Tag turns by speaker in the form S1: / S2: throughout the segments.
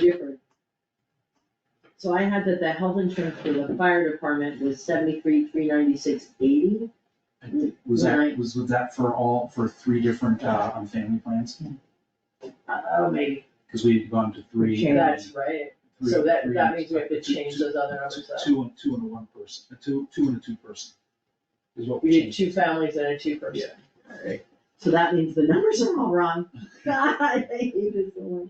S1: Gifford. So I had that the health insurance for the fire department was seventy-three, three ninety-six, eighty.
S2: Was that,
S1: Right.
S2: was, was that for all, for three different, uh, on family plans?
S1: Oh, maybe.
S2: Cause we've gone to three.
S3: Change.
S2: and
S3: That's
S1: That's right,
S2: three-
S1: so that,
S2: three
S1: that
S2: and-
S1: means we have to change those other numbers up.
S2: Two and, two and a one person, a two, two and a two person. Is what
S1: We
S2: we
S1: did
S2: changed.
S1: two families and a two person. So that means the numbers are all wrong. God, I hate this so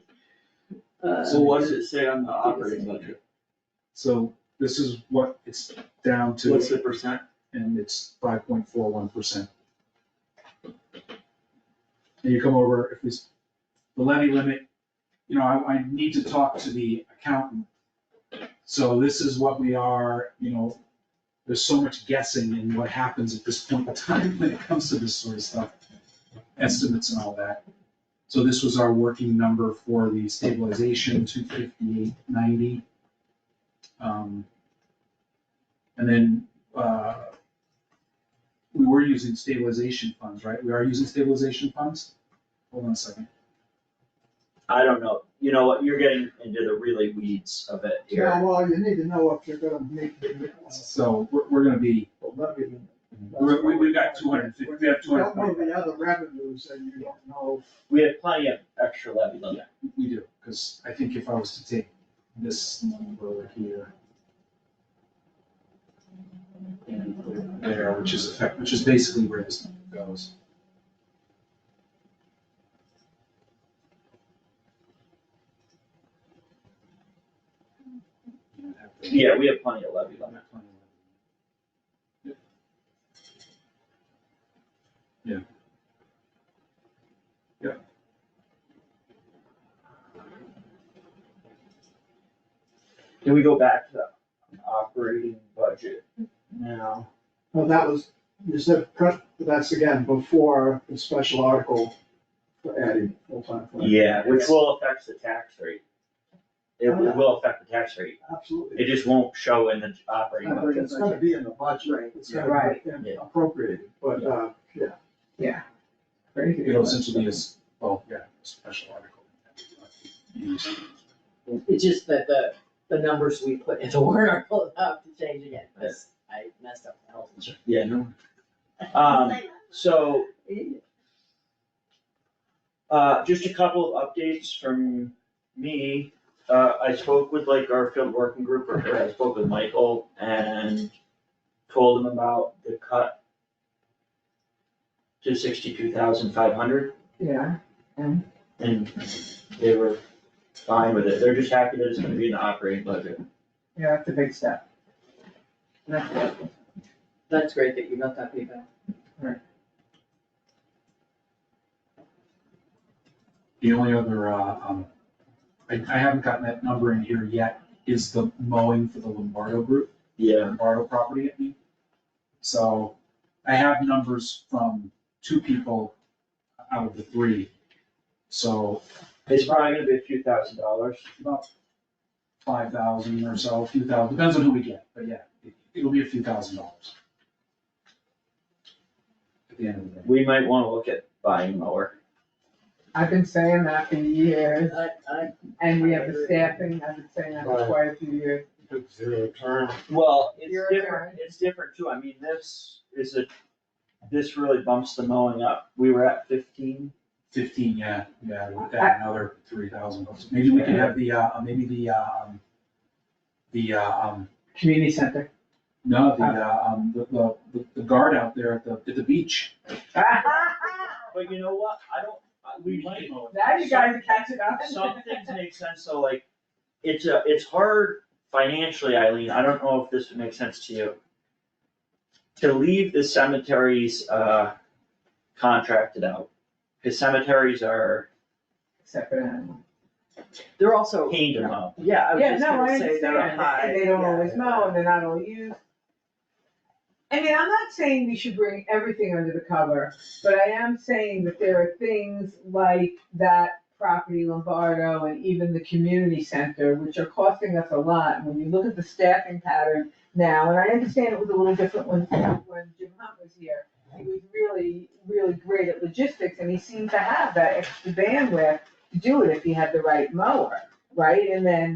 S1: much. Uh,
S2: So what does
S4: it say on the
S1: operating
S4: budget?
S2: So this is what it's down to,
S4: the percent?
S2: and it's five point four one percent. And you come over, if we, s- the levy limit, you know, I, I need to talk to the accountant. So this is what we are, you know, there's so much guessing in what happens at this point in time when it comes to this sort of stuff, estimates and all that. So this was our working number for the stabilization, two fifty-eight ninety. Um, and then, uh, we were using stabilization funds, right? We are using stabilization funds? Hold on a second.
S4: I don't know, you know what, you're getting into the really weeds of it
S3: Yeah,
S4: here.
S3: well, you need to know if you're gonna make the.
S2: So we're, we're gonna be, we're- we, we've got two hundred, we have two
S3: Don't know
S2: hundred.
S3: the other revenues and you don't know.
S4: We have plenty of extra levy limit.
S2: We do, because I think if I was to take this number here and put it there, which is effect, which is basically where this number goes.
S4: Yeah, we have plenty of levy limit.
S2: Yeah. Yep.
S4: Can we go back to the operating budget now?
S3: Well, that was, you said, pre- that's again before the special article for adding full-time. clerk.
S4: Yeah, which will affect the tax rate. It will will affect the tax rate, it
S3: Absolutely.
S4: just won't show in the operating
S3: But
S4: budget.
S3: It's gonna be in the budget, it's gonna
S1: Right.
S3: be
S4: Yeah.
S3: appropriated, but, uh, yeah.
S1: crazy.
S2: It'll essentially be as, well, yeah, special article.
S1: It's just that the, the numbers we put into warrant article have to change again, because I messed up the health insurance.
S4: Yeah, no. Um, so Uh, just a couple of updates from me. Uh, I spoke with like our field working group, or I spoke with Michael and told him about the cut to sixty-two thousand five hundred,
S1: Yeah.
S4: and they were fine with it. They're just happy that it's gonna be in the operating budget.
S5: Yeah, that's a big step.
S1: That's great that you got that feedback.
S2: The only other, uh, um, I, I haven't gotten that number in here yet, is the mowing for the Lombardo group.
S4: Yeah.
S2: Lombardo property at me. So I have numbers from two people out of the three. So
S4: It's probably gonna be a few thousand dollars.
S2: about five thousand or so, a few thousand, depends on who we get, but yeah, it- it'll be a few thousand dollars. At the end of the day.
S4: We might wanna look at buying mower.
S5: I've been saying that for years,
S1: I, I,
S5: and we have the staffing, I've been saying that for quite a few years.
S3: Zero term.
S4: Well, it's
S5: You're
S4: different, it's different too, I mean, this is a, this really bumps the mowing up, we were at fifteen.
S2: Fifteen, yeah, yeah, with that, another three thousand bucks, maybe we can have the, uh, maybe the, uh, um, the, uh, um,
S5: Community center.
S2: no, the, uh, um, the- the, the, the guard out there at the, at the beach.
S4: But you know what, I don't, I- we might,
S5: Now you guys are catching up.
S4: some things make sense, so like, it's a, it's hard financially, Eileen, I don't know if this would make sense to you. To leave the cemeteries, uh, contracted out, cause cemeteries are
S5: Except for animals.
S1: they're also,
S4: pain to mow.
S1: yeah, I was
S5: Yeah,
S1: just
S5: no, I
S1: gonna say
S5: understand,
S1: they're high.
S5: and they don't
S1: yeah.
S5: always mow, and they're not always used. I mean, I'm not saying we should bring everything under the cover, but I am saying that there are things like that property Lombardo and even the community center, which are costing us a lot, when you look at the staffing pattern now, and I understand it was a little different when, when Jim Hunt was here. He was really, really great at logistics, and he seemed to have that extra bandwidth to do it if he had the right mower. right? And then